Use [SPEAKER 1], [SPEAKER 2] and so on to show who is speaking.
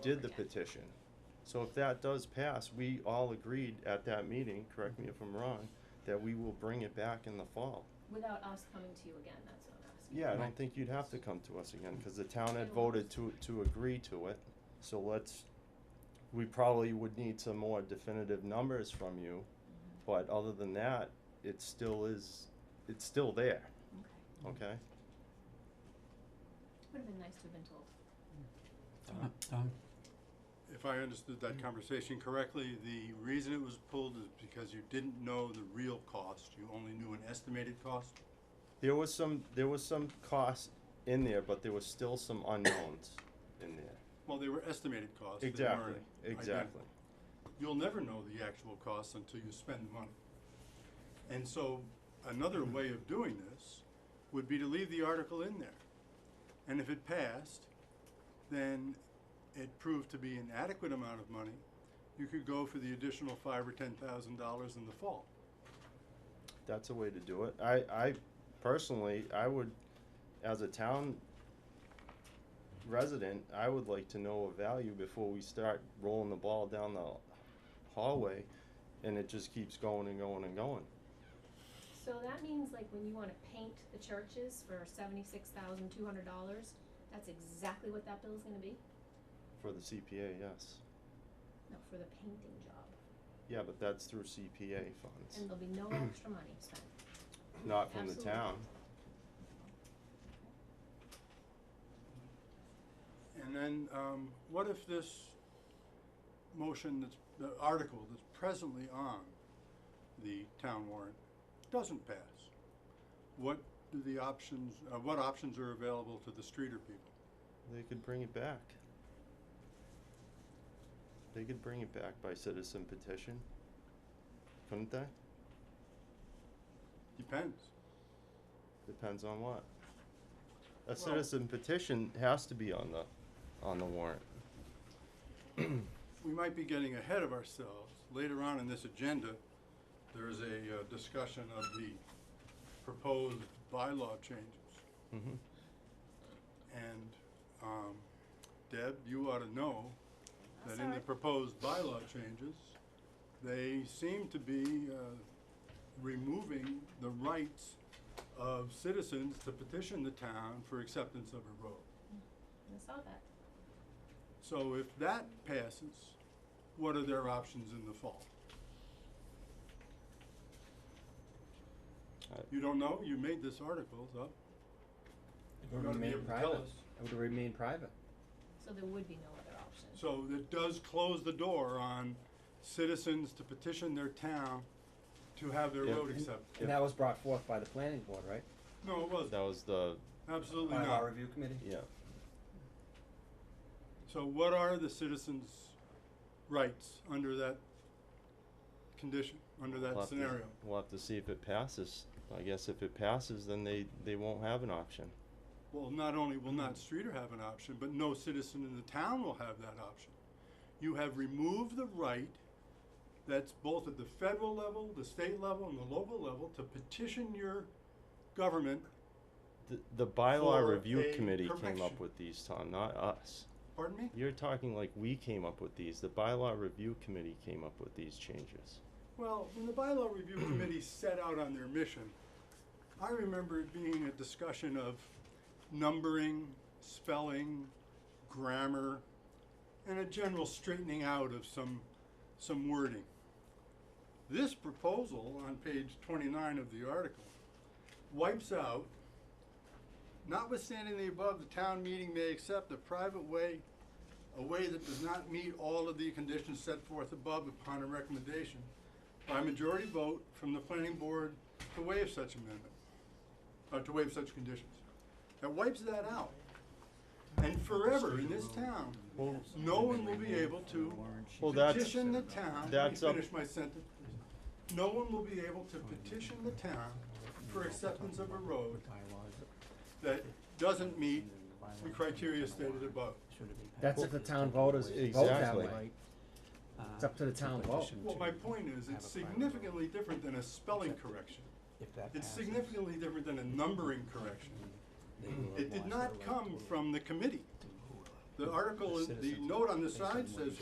[SPEAKER 1] did the
[SPEAKER 2] again.
[SPEAKER 1] petition. So if that does pass, we all agreed at that meeting, correct me if I'm wrong, that we will bring it back in the fall.
[SPEAKER 2] Without us coming to you again, that's what I'm asking.
[SPEAKER 1] Yeah, I
[SPEAKER 3] Right.
[SPEAKER 1] don't think you'd have to come to us again, cause the town had
[SPEAKER 2] They won't.
[SPEAKER 1] voted to, to agree to it, so let's, we probably would need some more definitive numbers from you, but other than that, it still is, it's still there,
[SPEAKER 2] Okay.
[SPEAKER 1] okay?
[SPEAKER 2] Would have been nice to have been told.
[SPEAKER 3] Tom, Tom,
[SPEAKER 4] If I understood
[SPEAKER 1] Mm.
[SPEAKER 4] that conversation correctly, the reason it was pulled is because you didn't know the real cost, you only knew an estimated cost?
[SPEAKER 1] There was some, there was some cost in there, but there was still some unknowns in there.
[SPEAKER 4] Well, they were estimated costs, they
[SPEAKER 1] Exactly,
[SPEAKER 4] weren't. ident-
[SPEAKER 1] exactly.
[SPEAKER 4] You'll never know the actual costs until you spend the money. And so, another
[SPEAKER 1] Mm.
[SPEAKER 4] way of doing this would be to leave the article in there. And if it passed, then it proved to be an adequate amount of money, you could go for the additional five or ten thousand dollars in the fall.
[SPEAKER 1] That's a way to do it. I, I personally, I would, as a town resident, I would like to know a value before we start rolling the ball down the hallway and it just keeps going and going and going.
[SPEAKER 2] So that means like when you wanna paint the churches for seventy-six thousand two hundred dollars, that's exactly what that bill's gonna be?
[SPEAKER 1] For the CPA, yes.
[SPEAKER 2] No, for the painting job.
[SPEAKER 1] Yeah, but that's through CPA funds,
[SPEAKER 2] And there'll be no extra money spent.
[SPEAKER 1] not from the
[SPEAKER 2] Absolutely.
[SPEAKER 1] town.
[SPEAKER 4] And then, um, what if this motion that's, the article that's presently on the town warrant doesn't pass? What do the options, uh, what options are available to the Streeter people?
[SPEAKER 1] They could bring it back. They could bring it back by citizen petition, couldn't they?
[SPEAKER 4] Depends.
[SPEAKER 1] Depends on what. A
[SPEAKER 4] Well-
[SPEAKER 1] citizen petition has to be on the, on the warrant.
[SPEAKER 4] We might be getting ahead of ourselves. Later on in this agenda, there is a, uh, discussion of the proposed bylaw changes.
[SPEAKER 1] Mm-hmm.
[SPEAKER 4] And, um, Deb, you ought to know that in the
[SPEAKER 2] Sorry.
[SPEAKER 4] proposed bylaw changes, they seem to be, uh, removing the rights of citizens to petition the town for acceptance of a road.
[SPEAKER 2] I saw that.
[SPEAKER 4] So if that passes, what are their options in the fall?
[SPEAKER 1] I-
[SPEAKER 4] You don't know? You made this article up. You're gonna be able to tell us.
[SPEAKER 5] It would remain private.
[SPEAKER 2] So there would be no other option.
[SPEAKER 4] So that does close the door on citizens to petition their town to have their
[SPEAKER 1] Yeah.
[SPEAKER 4] road accepted.
[SPEAKER 5] And that was brought forth by the planning board, right?
[SPEAKER 4] No, it wasn't.
[SPEAKER 1] That was the,
[SPEAKER 4] Absolutely
[SPEAKER 5] By our
[SPEAKER 4] not.
[SPEAKER 5] review committee?
[SPEAKER 1] yeah,
[SPEAKER 4] So what are the citizens' rights under that condition, under
[SPEAKER 1] we'll
[SPEAKER 4] that
[SPEAKER 1] have to-
[SPEAKER 4] scenario?
[SPEAKER 1] we'll have to see if it passes. I guess if it passes, then they, they won't have an option.
[SPEAKER 4] Well, not only will not Streeter have an option, but no citizen in the town will have that option. You have removed the right that's both at the federal level, the state level, and the local level to petition your government,
[SPEAKER 1] The, the bylaw
[SPEAKER 4] For
[SPEAKER 1] review
[SPEAKER 4] a
[SPEAKER 1] committee came up
[SPEAKER 4] correction.
[SPEAKER 1] with these, Tom, not us.
[SPEAKER 4] pardon me?
[SPEAKER 1] You're talking like we came up with these. The bylaw review committee came up with these changes.
[SPEAKER 4] Well, when the bylaw review committee set out on their mission, I remember it being a discussion of numbering, spelling, grammar, and a general straightening out of some, some wording. This proposal on page twenty-nine of the article wipes out, notwithstanding the above, the town meeting may accept a private way a way that does not meet all of the conditions set forth above upon a recommendation by majority vote from the planning board to waive such amendment, uh, to waive such conditions. That wipes that out. And forever in this town,
[SPEAKER 1] Well,
[SPEAKER 4] no one will be able to
[SPEAKER 1] Well, that's-
[SPEAKER 4] petition the town, let me
[SPEAKER 1] that's up-
[SPEAKER 4] finish my sentence. No one will be able to petition the town for acceptance of a road that doesn't meet the criteria stated above.
[SPEAKER 5] That's if the town voters vote that
[SPEAKER 1] Exactly.
[SPEAKER 5] way. It's up to the town vote.
[SPEAKER 4] Well, my point is, it's significantly different than a spelling correction. It's significantly different than a numbering correction. It did not come from the committee. The article,
[SPEAKER 3] The
[SPEAKER 4] the
[SPEAKER 3] citizens
[SPEAKER 4] note on the
[SPEAKER 3] based on
[SPEAKER 4] side
[SPEAKER 3] what
[SPEAKER 4] says